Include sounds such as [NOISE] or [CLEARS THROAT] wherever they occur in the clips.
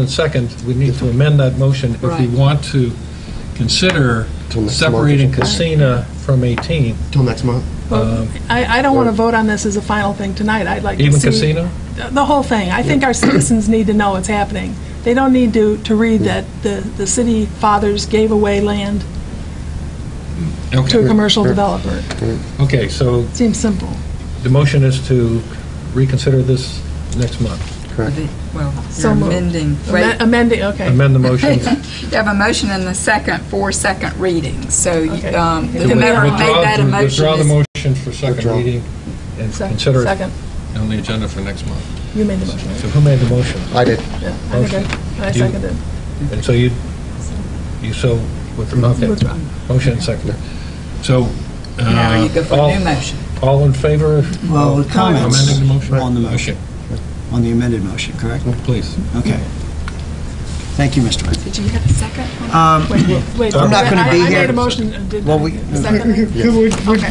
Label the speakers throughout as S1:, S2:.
S1: And second, we need to amend that motion if we
S2: Right.
S1: want to consider
S3: Till next month.
S1: separating Casina from 18.
S3: Till next month?
S2: Well,
S4: Um,
S2: I, I don't want to vote on this as a final thing tonight. I'd like to see...
S1: Even Casino?
S2: The the whole thing. I think our citizens need to know what's happening. They don't need to, to read that the, the city fathers gave away land to a
S1: Okay,
S2: commercial developer.
S1: okay, so
S2: Seems simple.
S1: the motion is to reconsider this next month.
S3: Correct.
S5: Well,
S2: So
S5: you're
S2: moved.
S5: amending,
S2: Amen-
S5: right?
S2: Amending, okay.
S1: Amend the
S5: [LAUGHS]
S1: motion.
S5: You have a motion and a second for second reading, so
S2: Okay.
S5: um,
S2: To
S5: whoever made
S1: Withdraw-
S5: that a motion
S1: Withdraw the
S5: is...
S1: motion for second
S3: Withdraw.
S1: reading and
S2: Se-
S1: consider it
S2: Second.
S1: on the agenda for next month.
S2: You made the motion.
S1: So who made the motion?
S3: I did.
S2: Yeah, I think I- I
S1: You-
S2: seconded.
S1: And so you, you so withdraw, okay.
S2: Withdraw.
S1: Motion and second. So, uh,
S5: Now you go for
S1: all-
S5: a new motion.
S1: all in favor?
S4: Well,
S1: of
S4: the comments-
S1: Amending the motion? Oh,
S4: On the motion. on the amended motion, correct?
S1: Please.
S4: Okay. Thank you, Mr. Wentz.
S5: Did you have a second?
S4: Um,
S2: Wait, wait, wait.
S4: I'm not gonna
S2: I-
S4: be
S2: I
S4: here.
S2: made a motion and did
S4: Well,
S2: not.
S4: we- [LAUGHS]
S2: Second.
S6: Could we- would-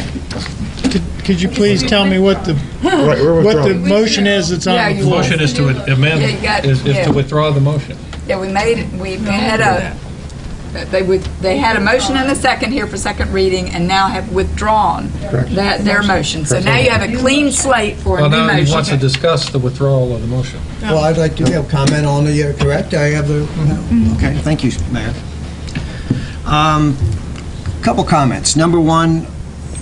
S6: could- Could you please tell me what the,
S3: Right, we're
S6: what the
S3: withdrawing.
S6: motion is that's
S5: Yeah,
S6: on the
S5: you
S6: floor?
S1: Motion is to amend,
S5: Yeah, you got-
S1: is is
S5: yeah.
S1: to withdraw the motion.
S5: Yeah, we made, it. we had a, they would, they had a motion and a second here for second reading and now have withdrawn that, their motion. So now you have a clean slate for a
S1: Well,
S5: new
S1: now he wants to
S5: motion.
S1: discuss the withdrawal of the motion.
S4: Well, I'd like to have comment on the, uh, correct, I have the, okay, thank you, Mayor. Um, Couple comments. Number one,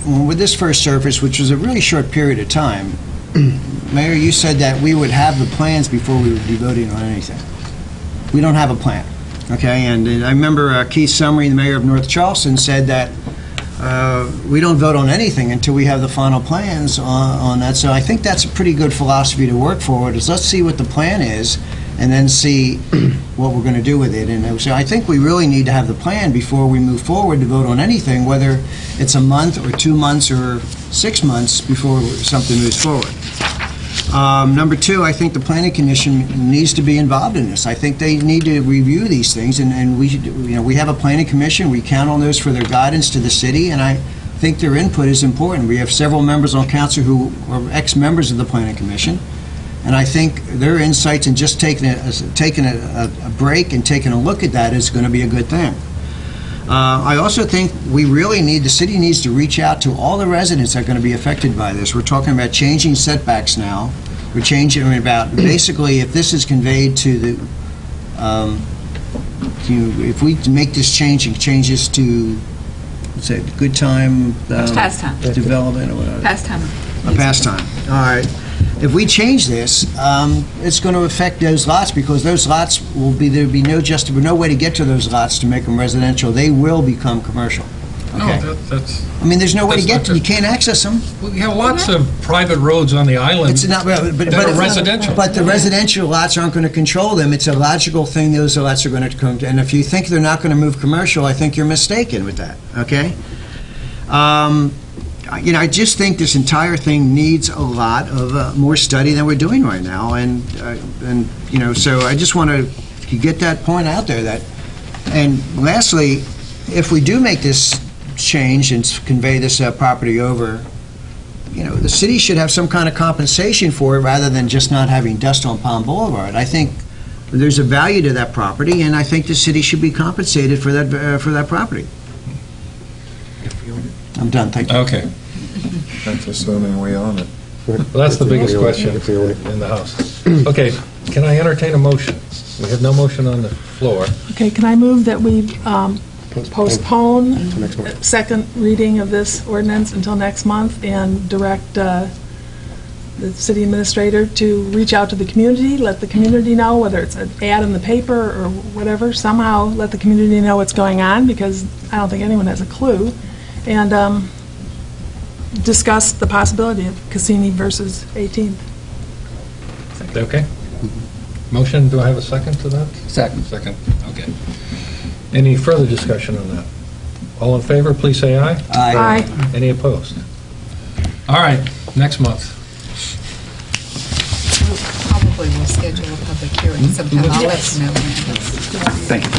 S4: when with this first surface, which was a really short period of time, [CLEARS THROAT] Mayor, you said that we would have the plans before we would be voting on anything. We don't have a plan, okay? And uh, I remember uh, Keith Summery, the mayor of North Charleston, said that uh, we don't vote on anything until we have the final plans on- on that. So I think that's a pretty good philosophy to work forward, is let's see what the plan is, and then see [CLEARS THROAT] what we're going to do with it. And uh, so I think we really need to have the plan before we move forward to vote on anything, whether it's a month, or two months, or six months before something moves forward. Um, Number two, I think the planning commission needs to be involved in this. I think they need to review these things, and, and we, should- you know, we have a planning commission, we count on those for their guidance to the city, and I think their input is important. We have several members on council who are ex-members of the planning commission, and I think their insights and just taking a, taking a, a- a break and taking a look at that is going to be a good thing. Uh, I also think we really need, the city needs to reach out to all the residents that are going to be affected by this. We're talking about changing setbacks now. We're changing I mean, about, basically, if this is conveyed to the, um, to, if we make this change, it changes to, what's it, good time? um,
S5: Pastime.
S4: Development or whatever.
S5: Past time.
S4: A pastime. All right. If we change this, um, it's going to affect those lots because those lots will be, there'll be no just, no way to get to those lots to make them residential. They will become commercial.
S1: No,
S4: Okay.
S1: that- that's,
S4: I mean, there's no way to
S1: That's
S4: get to,
S1: not
S4: you can't access them.
S1: we have lots of private roads on the island.
S4: It's not, but. but-
S1: That are
S4: but-
S1: residential.
S4: But the residential lots aren't going to control them. It's a logical thing, those lots are going to come, to- and if you think they're not going to move commercial, I think you're mistaken with that, okay? Um, I- You know, I just think this entire thing needs a lot of uh, more study than we're doing right now, and, uh, and, you know, so I just want to get that point out there that, and lastly, if we do make this change and s- convey this uh, property over, you know, the city should have some kind of compensation for it rather than just not having dust on Palm Boulevard. I think there's a value to that property, and I think the city should be compensated for that, uh, for that property. I'm done, thank you.
S1: Okay,
S7: That's assuming we own it.
S1: well, that's the biggest
S3: If we own it,
S1: question
S3: if we own it.
S1: in the House. Okay, can I entertain a motion? We have no motion on the floor.
S2: Okay, can I move that we um, postpone
S3: Till next month.
S2: second reading of this ordinance until next month and direct uh, the city administrator to reach out to the community, let the community know, whether it's an ad in the paper or whatever, somehow let the community know what's going on, because I don't think anyone has a clue, and um, discuss the possibility of Cassini versus 18th.
S1: Okay? Motion, do I have a second to that? Second. Second, okay. Any further discussion on that? All in favor, please say aye.
S2: Aye.
S1: Any opposed? All right, next month.
S5: Probably we'll schedule a public hearing sometime. I'll let you know when.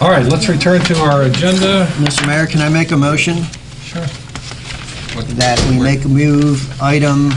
S1: All right, let's return to our agenda.
S4: Mr. Mayor, can I make a motion
S1: Sure.
S4: that we make, move item